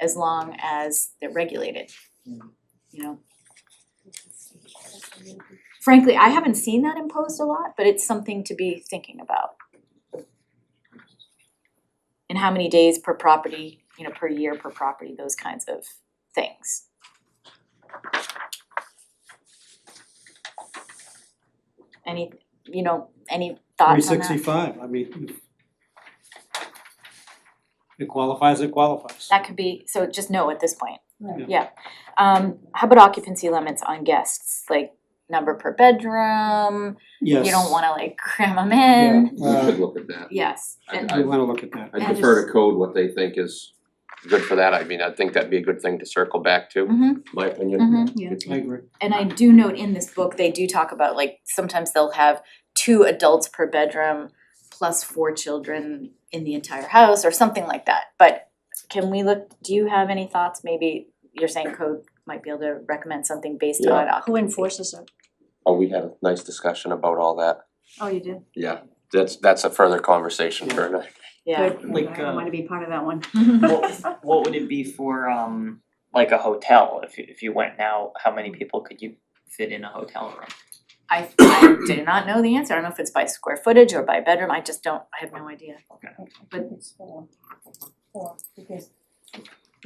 as long as they're regulated. Mm. You know? Frankly, I haven't seen that imposed a lot, but it's something to be thinking about. And how many days per property, you know, per year per property, those kinds of things. Any, you know, any thoughts on that? Three sixty-five, I mean. It qualifies, it qualifies. That could be, so just no at this point. Right. Yeah. Um, how about occupancy limits on guests, like number per bedroom? Yes. You don't wanna like cram them in? We should look at that. Yes, and I wanna look at that. I'd Uh, And prefer just- to code what they think is good for that, I mean, I think that'd be a good thing to circle back to, mhm, my opinion. mhm. I agree. And I do note in this book, they do talk about like sometimes they'll have two adults per bedroom plus four children in the entire house or something like that. But can we look, do you have any thoughts? Maybe you're saying code might be able to recommend something based Yeah. on Who occupancy. enforces it? Oh, we had a nice discussion about all that, Oh, you did? yeah, that's that's a further conversation for another. Yeah. Mm-hmm. Good. Like, I don't uh, want to be part of that one. What what would it be for um like a hotel, if you if you went now, how many people could you fit in a hotel room? I I did not know the answer, I don't know if it's by square footage or by bedroom, I just don't, I have no idea. But- It's four, four, because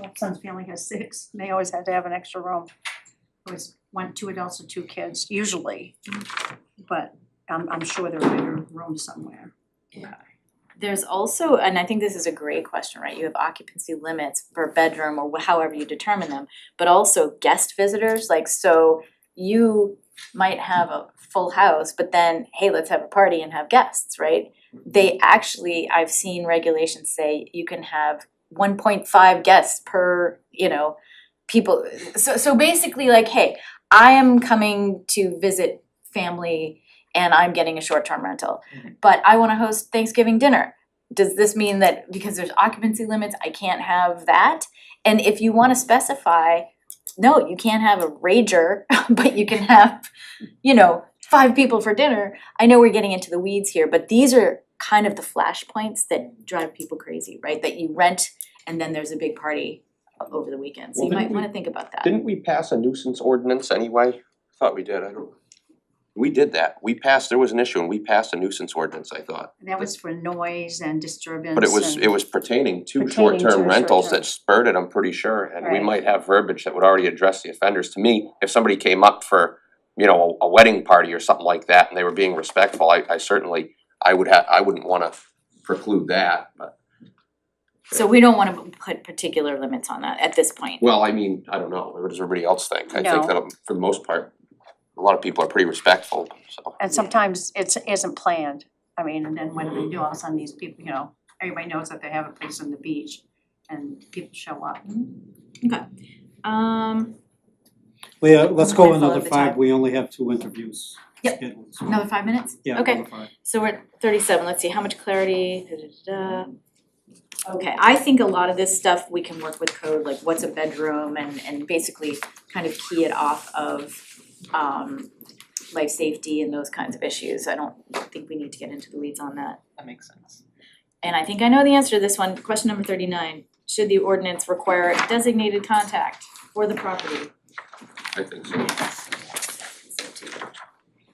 my son's family has six, and they always had to have an extra room. Always one, two adults and two kids, usually, but I'm I'm sure there are bigger rooms somewhere. There's also, and I think this is a great question, right, you have occupancy limits per bedroom or wh- however you determine them, but also guest visitors, like so you might have a full house, but then, hey, let's have a party and have guests, right? They actually, I've seen regulations say you can have one point five guests per, you know, people, so so basically like, hey, I am coming to visit family and I'm getting a short-term rental but I wanna host Thanksgiving dinner. Does this mean that because there's occupancy limits, I can't have that? And if you wanna specify, no, you can't have a rager, but you can have, you know, five people for dinner. I know we're getting into the weeds here, but these are kind of the flashpoints that drive people crazy, right? That you rent and then there's a big party o- over the weekend, so you Well, might didn't we- wanna think about that. Didn't we pass a nuisance ordinance anyway? Thought we did, I don't. We did that, we passed, there was an issue and we passed a nuisance ordinance, I thought, And that was for noise and disturbance but it was, and- it was pertaining to Pertaining to short-term a rentals short-term. that spurred it, I'm pretty sure. And we Right. might have verbiage that would already address the offenders, to me, if somebody came up for, you know, a a wedding party or something like that and they were being respectful, I I certainly, I would have, I wouldn't wanna preclude that, but. So we don't wanna put particular limits on that at this point. Well, I mean, I don't know, what does everybody else think? I No. think that um, for the most part, a lot of people are pretty respectful, so. And sometimes it's isn't planned, I mean, and then what do they do, all of a sudden these people, you know, everybody knows that they have a place on the beach and people show up. Um, Leah, let's go Mindful of another the five, time. we only have two interviews Yep. scheduled, so- another five minutes? Yeah, okay. another five. So we're at thirty-seven, let's see, how much clarity, da, da, da, da. Okay, I think a lot of this stuff, we can work with code, like what's a bedroom and, and basically kind of key it off of, um, life safety and those kinds of issues, I don't think we need to get into the weeds on that. That makes sense. And I think I know the answer to this one, question number thirty-nine, should the ordinance require a designated contact for the property? I think so.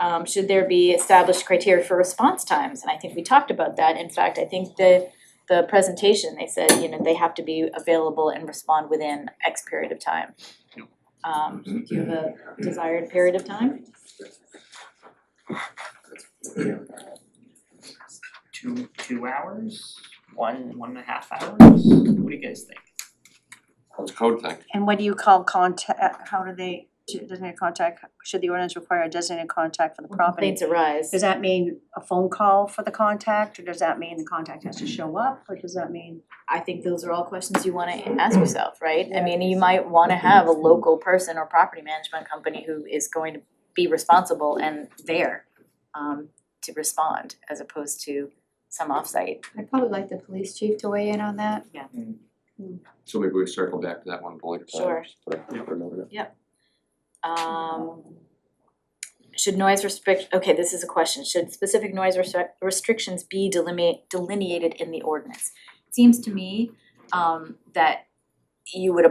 Um, should there be established criteria for response times? And I think we talked about that. In fact, I think the, the presentation, they said, you know, they have to be available and respond within X period of time. Um, do you have a desired period of time? Two two hours, one one and a half hours, what do you guys think? It's a code thing. And what do you call contact, how do they, do- doesn't it contact, should the ordinance require a designated contact for the property? Complaints arise. Does that mean a phone call for the contact, or does that mean the contact has to show up, or does that mean? I think those are all questions you wanna ask yourself, right? I mean, you might wanna have a local person or property management company who is going to be responsible and there um to respond as opposed to some offsite. I'd probably like the police chief to weigh in on that. So maybe we circle back to that one later. time, Sure. just for- for another- Um should noise restrict, okay, this is a question, should specific noise restric- restrictions be delimit delineated in the ordinance? Seems to me um that you would